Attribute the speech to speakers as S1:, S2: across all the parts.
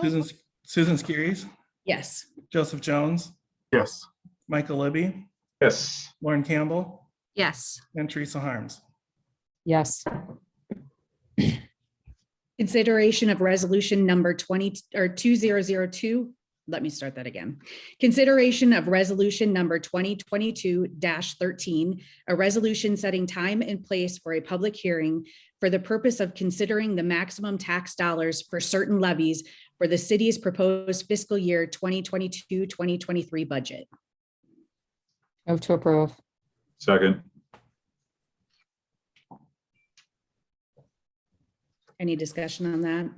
S1: Susan, Susan Skiris,
S2: Yes.
S1: Joseph Jones,
S3: Yes.
S1: Michael Libby,
S3: Yes.
S1: Lauren Campbell,
S4: Yes.
S1: and Teresa Harms.
S5: Yes.
S2: Consideration of resolution number 20 or 2002. Let me start that again. Consideration of resolution number 2022-13, a resolution setting time and place for a public hearing for the purpose of considering the maximum tax dollars for certain levies for the city's proposed fiscal year 2022-2023 budget.
S5: Move to approve.
S3: Second.
S2: Any discussion on that?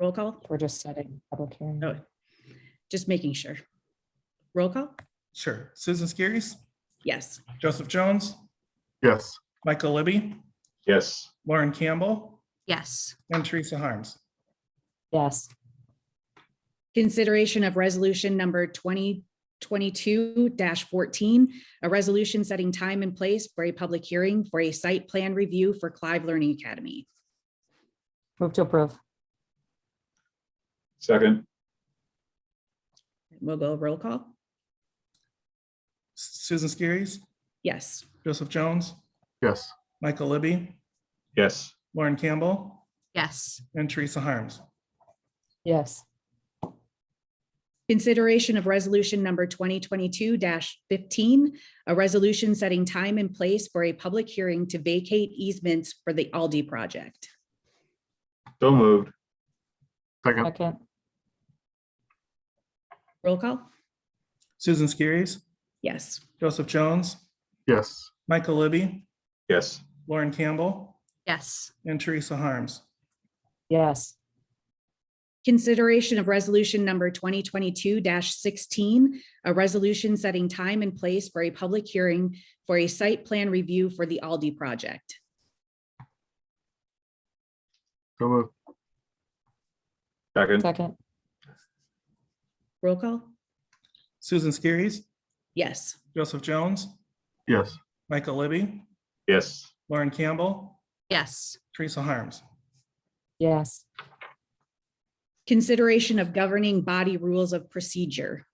S2: Roll call,
S5: We're just setting public hearing.
S2: No. just making sure. Roll call?
S1: Sure. Susan Skiris,
S2: Yes.
S1: Joseph Jones,
S3: Yes.
S1: Michael Libby,
S3: Yes.
S1: Lauren Campbell,
S4: Yes.
S1: and Teresa Harms.
S5: Yes.
S2: Consideration of resolution number twenty twenty-two fourteen, a resolution setting time and place for a public hearing for a site plan review for Clive Learning Academy.
S5: Move to approve.
S3: Second.
S2: We'll go roll call.
S1: Susan Skiris,
S2: Yes.
S1: Joseph Jones,
S3: Yes.
S1: Michael Libby,
S3: Yes.
S1: Lauren Campbell,
S4: Yes.
S1: and Teresa Harms.
S5: Yes.
S2: Consideration of resolution number twenty twenty-two fifteen, a resolution setting time and place for a public hearing to vacate easements for the Aldi project.
S3: So moved. Second.
S5: Second.
S2: Roll call.
S1: Susan Skiris,
S2: Yes.
S1: Joseph Jones,
S3: Yes.
S1: Michael Libby,
S3: Yes.
S1: Lauren Campbell,
S4: Yes.
S1: and Teresa Harms.
S5: Yes.
S2: Consideration of resolution number twenty twenty-two sixteen, a resolution setting time and place for a public hearing for a site plan review for the Aldi project.
S3: So moved. Second.
S5: Second.
S2: Roll call?
S1: Susan Skiris,
S2: Yes.
S1: Joseph Jones,
S3: Yes.
S1: Michael Libby,
S3: Yes.
S1: Lauren Campbell,
S4: Yes.
S1: Teresa Harms.
S5: Yes.
S2: Consideration of governing body rules of procedure.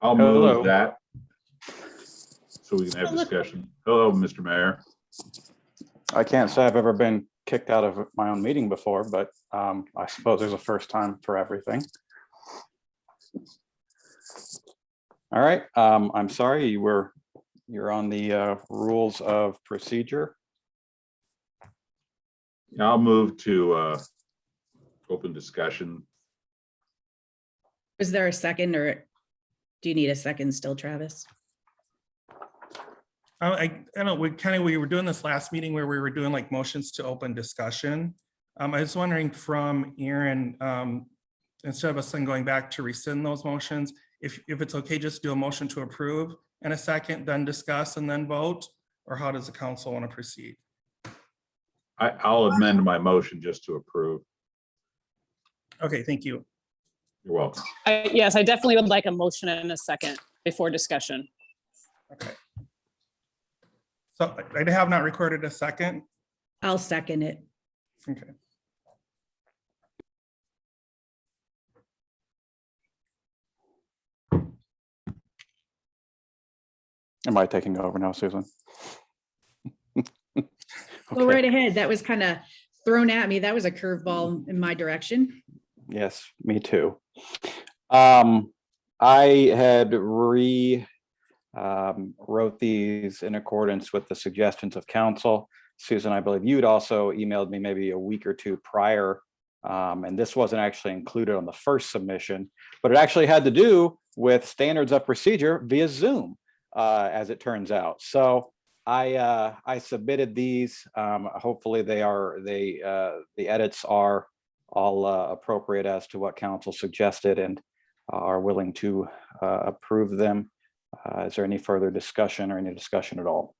S3: I'll
S6: Hello.
S3: move that. So we can have
S2: Hello.
S3: discussion. Hello, Mr. Mayor.
S6: I can't say I've ever been kicked out of my own meeting before, but um, I suppose there's a first time for everything. All right, um, I'm sorry, you were, you're on the uh, rules of procedure.
S3: I'll move to uh, open discussion.
S2: Was there a second or do you need a second still, Travis?
S1: I, I, I don't know, we kind of, we were doing this last meeting where we were doing like motions to open discussion. Um, I was wondering from Aaron, um, instead of us then going back to rescind those motions, if, if it's okay, just do a motion to approve and a second, then discuss and then vote? Or how does the council want to proceed?
S3: I, I'll amend my motion just to approve.
S1: Okay, thank you.
S3: You're welcome.
S7: I, yes, I definitely would like a motion and a second before discussion.
S1: Okay. So I- I have not recorded a second.
S2: I'll second it.
S1: Okay.
S6: Am I taking over now, Susan?
S2: Go
S6: Okay,
S2: right ahead. That was kind of thrown at me. That was a curveball in my direction.
S6: Yes, me too. Um, I had re um, wrote these in accordance with the suggestions of council. Susan, I believe you'd also emailed me maybe a week or two prior. Um, and this wasn't actually included on the first submission, but it actually had to do with standards of procedure via Zoom, uh, as it turns out. So I, uh, I submitted these. Um, hopefully they are, they, uh, the edits are all uh, appropriate as to what council suggested and are willing to uh, approve them. Uh, Is there any further discussion or any discussion at all?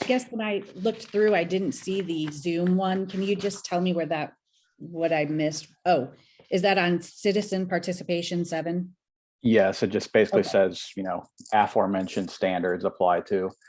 S2: I guess when I looked through, I didn't see the Zoom one. Can you just tell me where that, what I missed? Oh, is that on citizen participation seven?
S6: Yes, it just basically
S5: Okay.
S6: says, you know, aforementioned standards apply to.